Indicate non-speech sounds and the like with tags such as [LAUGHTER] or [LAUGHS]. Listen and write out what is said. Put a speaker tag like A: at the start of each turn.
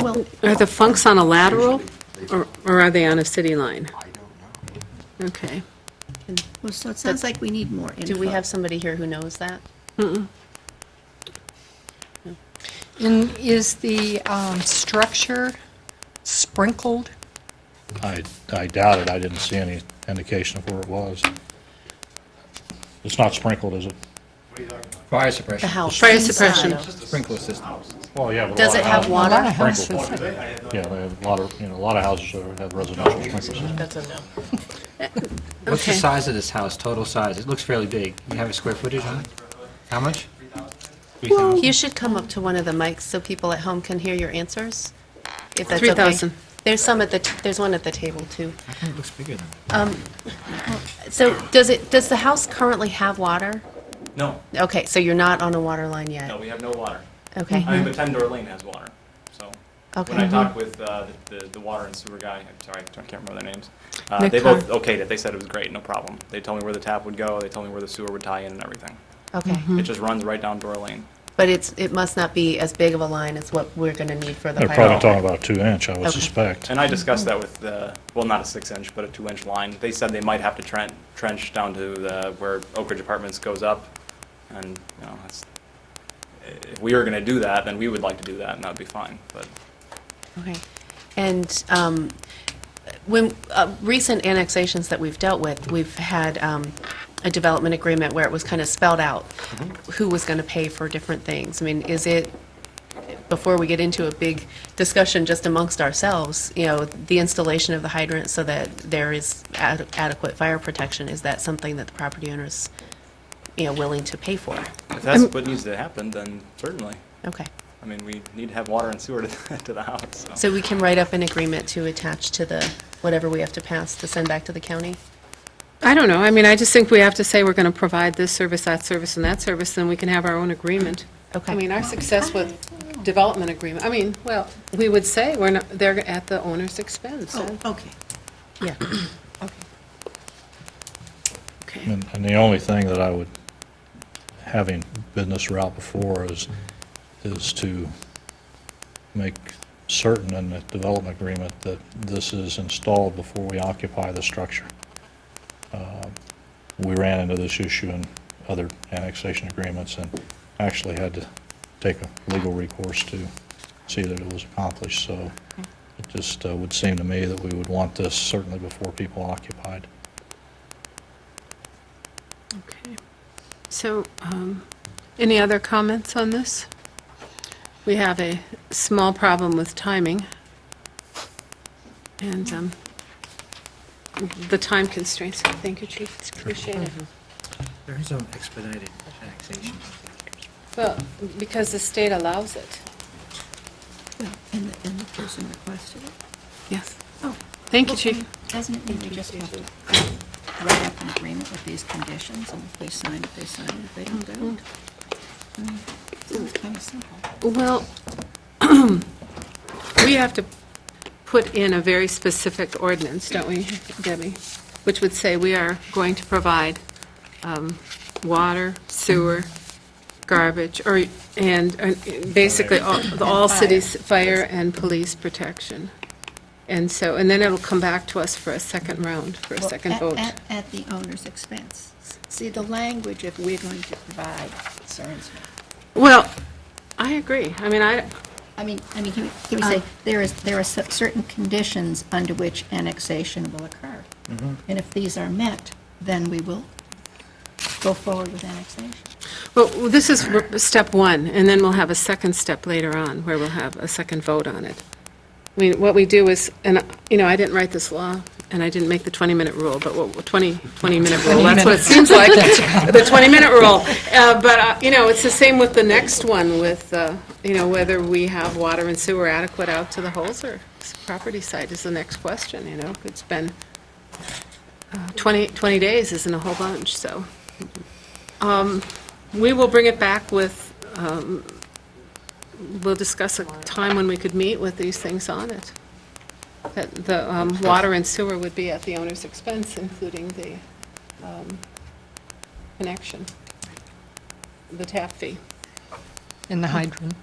A: Well,
B: Are the funks on a lateral, or or are they on a city line?
C: I don't know.
B: Okay.
A: well, so it sounds like we need more info.
D: Do we have somebody here who knows that?
E: And is the um, structure sprinkled?
F: I, I doubt it, I didn't see any indication of where it was. It's not sprinkled, is it?
G: Fire
D: The
G: suppression.
D: house?
B: Fire
D: inside
B: suppression.
D: of-
G: Sprinkler system.
F: Well, yeah. but a
D: Does it
F: lot of
D: have
F: houses-
E: A lot of
D: water?
E: houses.
F: Sprinkled, yeah, they have a lot of, you know, a lot of houses that have residential sprinklers.
D: That's a no.
G: What's the
B: Okay.
G: size of this house, total size? It looks fairly big. You have a square footage on it? How much? 3,000.
D: You should come up to one of the mics so people at home can hear your answers, if that's okay.
B: 3,000.
D: There's some at the, t- there's one at the table, too. Um,
G: I think it looks bigger than that.
D: So does it, does the house currently have water?
H: No,
D: Okay, so you're not on a water line yet?
H: no, we have no water.
D: Okay,
H: I mean, but Tendor Lane has water, so. When
D: Uh-huh.
H: I
D: Okay.
H: talked with uh, the, the- the water and sewer guy, I'm sorry, I can't remember their names. Uh,
B: Nick
H: They
B: Con-
H: both okayed it, they said it was great, no problem. They told me where the tap would go, they told me where the sewer would tie in and everything.
D: okay.
H: It just runs right down Door Lane.
D: But it's, it must not be as big of a line as what we're going to need for the
F: They're probably
D: pilot.
F: talking about a two-inch, I would
D: Okay.
F: suspect.
H: And I discussed that with the, well, not a six-inch, but a two-inch line. They said they might have to tren- trench down to the, where Oak Ridge Apartments goes up, and, you know, it's, if we were gonna do that, then we would like to do that, and that'd be fine, but.
D: Okay. And um, when, uh, recent annexations that we've dealt with, we've had um, a development agreement where it was kind of spelled out who was going to pay for different things. I mean, is it, before we get into a big discussion just amongst ourselves, you know, the installation of the hydrant so that there is ad- adequate fire protection, is that something that the property owner's, you know, willing to pay for?
H: If that's what needs to happen, then certainly.
D: Okay.
H: I mean, we need to have water and sewer to, [LAUGHS] to the house, so.
D: So we can write up an agreement to attach to the, whatever we have to pass to send back to the county?
B: I don't know, I mean, I just think we have to say we're going to provide this service, that service, and that service, then we can have our own agreement.
D: Okay.
B: I mean, our success with development agreement, I mean, well, we would say we're not, they're at the owner's expense.
A: Oh, okay.
D: [CLEARS THROAT] Yeah.
B: Okay.
F: And and the only thing that I would, having been this route before, is, is to make certain in the development agreement that this is installed before we occupy the structure. Uh, We ran into this issue in other annexation agreements and actually had to take a legal recourse to see that it was accomplished, so it just uh, would seem to me that we would want this certainly before people occupied.
B: Okay. So, um, any other comments on this? We have a small problem with timing, and um, the time constraints. Thank you, Chief, appreciate it.
G: There is some expedited annexation.
B: Well, because the state allows it.
A: Well, And the, and the person requested it.
B: Yes.
A: Oh.
B: Thank you,
A: okay.
B: Chief.
A: Doesn't it mean we just have to write up an agreement with these conditions, and if they sign it, they sign it, if they don't, they don't? I mean, It's kind of simple.
B: Well, [CLEARS THROAT] we have to put in a very specific ordinance, don't we, Debbie? Which would say we are going to provide um, water, sewer, garbage, or, and uh, basically all the all
A: fire.
B: cities, fire and police protection. And so, and then it'll come back to us for a second round, for a
A: Well,
B: second
A: at-
B: vote.
A: At, at the owner's expense. See, the language of we're going to provide concerns me.
B: Well, I agree. I mean, I,
A: I mean, I mean, can we- can we say,
B: Um,
A: there is, there are cer- certain conditions under which annexation will occur. And if these are met, then we will go forward with annexation.
B: Well, this is r- step one, and then we'll have a second step later on, where we'll have a second vote on it. I mean, what we do is, and, you know, I didn't write this law, and I didn't make the 20-minute rule, but what, 20, 20-minute rule, that's what it seems like, [LAUGHS] the 20-minute rule. Uh, But, uh, you know, it's the same with the next one, with, uh, you know, whether we have water and sewer adequate out to the Holzer property site is the next question, you know? It's been, uh, 20, 20 days isn't a whole bunch, so. We will bring it back with, um, we'll discuss a time when we could meet with these things on it. That the um, water and sewer would be at the owner's expense, including the um, connection, the tap fee,
E: In the hydrant.